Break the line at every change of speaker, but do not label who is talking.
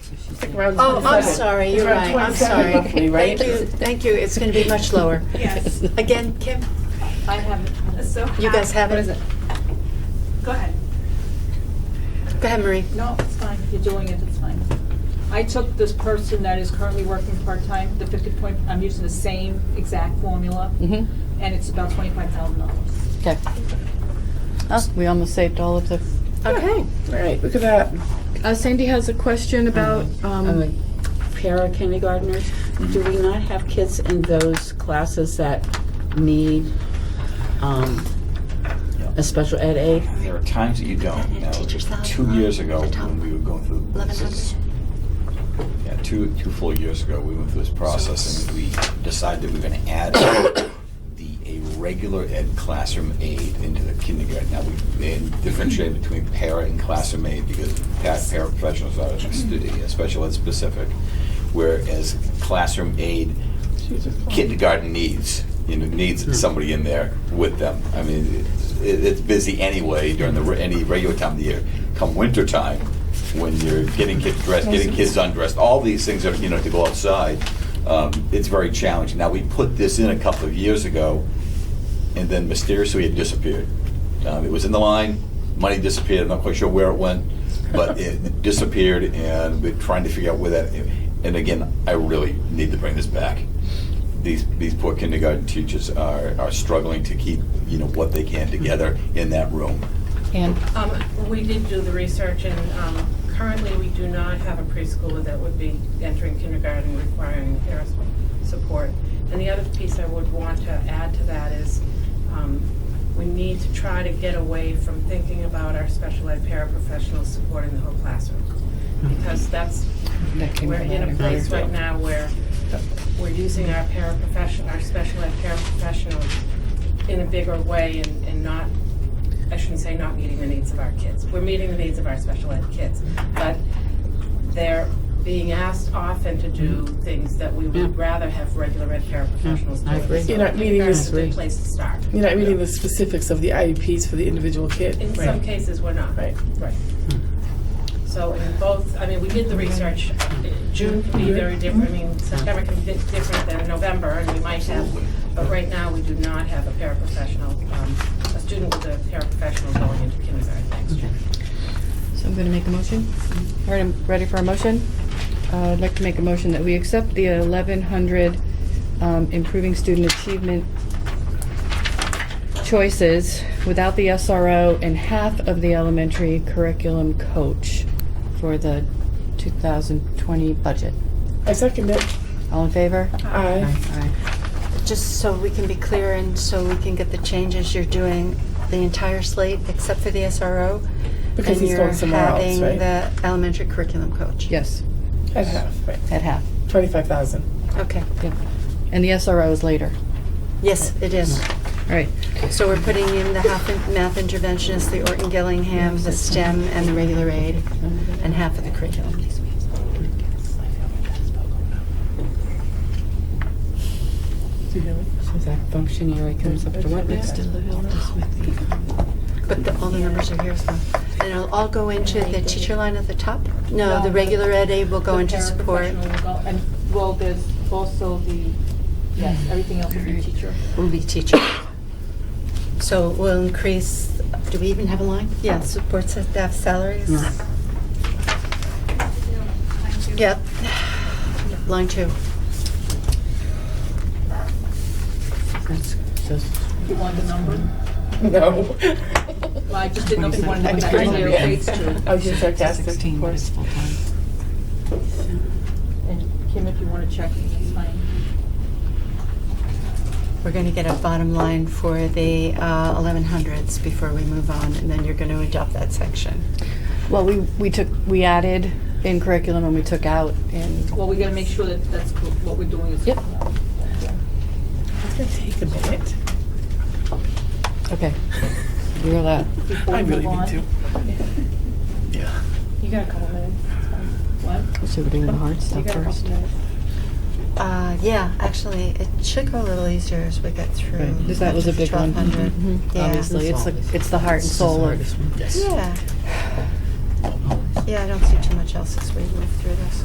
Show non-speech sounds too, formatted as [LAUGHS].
around
Oh, I'm
27.
sorry,
It's
you're
around
right, I'm
27
sorry.
roughly, right?
Thank you, thank you, it's gonna be much lower.
Yes.
Again, Kim,
I haven't. So.
you guys have it?
Go ahead.
Go ahead, Marie.
No, it's fine. You're doing it, it's fine. I took this person that is currently working part-time, the fifty point, I'm using the same exact formula,
Mm-hmm,
and it's about twenty-five thousand dollars.
okay. Oh, we almost saved all of the.
Okay.
All right, look at that.
Uh, Sandy has a question about, um,
para kindergartners, do we not have kids in those classes that need um, a special ed aid?
There are times that you don't. Now,
Teacher's salary
two
line
years ago,
at the top.
when we were going through this, is- yeah, two two full years ago, we went through this process and we decided that we were going to add the a regular ed classroom aid into the kindergarten. Now we and differentiate between para and classroom aid because pa- paraprofessionals are stu- yeah, special ed specific, whereas classroom aid kindergarten needs, you know, needs somebody in there with them. I mean, it's- it, it's busy anyway during the, re- any regular time of the year. Come winter time, when you're getting kids dressed, getting kids undressed, all these things are, you know, to go outside, um, it's very challenging. Now, we put this in a couple of years ago, and then mysteriously it disappeared. Um, it was in the line, money disappeared. I'm not quite sure where it went, but it [LAUGHS] disappeared, and we're trying to figure out where that. And again, I really need to bring this back. These these poor kindergarten teachers are are struggling to keep you know what they can together in that room.
And
Um, we did do the research and, um, currently we do not have a preschooler that would be entering kindergarten requiring parent support. And the other piece I would want to add to that is, um, we need to try to get away from thinking about our special ed paraprofessionals supporting the whole classroom. Because that's,
that came
we're in a
from-
place right now where we're using our paraprofession, our special ed paraprofessionals in a bigger way and, and not, I shouldn't say not meeting the needs of our kids. We're meeting the needs of our special ed kids, but they're being asked often to do things that we would rather have regular ed paraprofessionals
I
do.
agree.
So
You're not meeting
kindergarten's
this-
a good place to start.
You're not reading the specifics of the IEPs for the individual kid.
In some cases, we're not.
Right. Hmm.
Right. So in both, I mean, we did the research, June can be very different, I
Hmm.
mean, September can be different than November, and we might have, but right now, we do not have a paraprofessional, um, a student with a paraprofessional going into kindergarten next year.
So I'm gonna make a motion. All right, I'm ready for a motion. Uh, I'd like to make a motion that we accept the eleven hundred, um, improving student achievement choices without the SRO and half of the elementary curriculum coach for the two thousand twenty budget.
I second it.
All in favor?
Aye.
Aye.
Just so we can be clear and so we can get the changes, you're doing the entire slate except for the SRO.
Because he's going somewhere else,
And you're having
right?
the elementary curriculum coach.
Yes,
At half, right.
at half.
Twenty-five thousand.
Okay,
And the SRO is later.
yes, it is.
Mm.
All right,
So we're putting in the half in- math interventionist, the Orton Gillingham, the STEM, and the regular aid, and half of the curriculum.
So that functionary comes up to what next?
But the, all the numbers are here, so, and it'll all go into the teacher line at the top? No, the regular ed aid will go
The
into support.
paraprofessional will go- And, well, there's also the, yes,
Mm-hmm.
everything else will be teacher.
will be teacher. So we'll increase, do we even have a line? Yeah, support staff salaries. Yep, line two.
You want the number?
No.
Well, I just didn't know if you wanted to know
[LAUGHS]
what that
Twenty-seven.
number equates to.
I was just sarcastic, of
but
course.
And Kim, if you want to check, it's fine.
We're going to get a bottom line for the uh, 1100s before we move on, and then you're going to adopt that section.
Well, we, we took, we added in curriculum and we took out in
Well, we got to make sure that that's co- what we're doing is.
Yep.
It's gonna take a minute.
Okay. [LAUGHS] You're allowed.
Before
I
we
really
move on.
need to. Yeah.
You got a couple minutes. What?
So we're doing the hard stuff first.
Uh, Yeah, actually, it should go a little easier as we get through.
Because that was a big one.
1200.
Mhm.
Yeah.
Obviously, it's the, it's the heart and soul of
Yeah. Yeah, I don't see too much else as we move through this.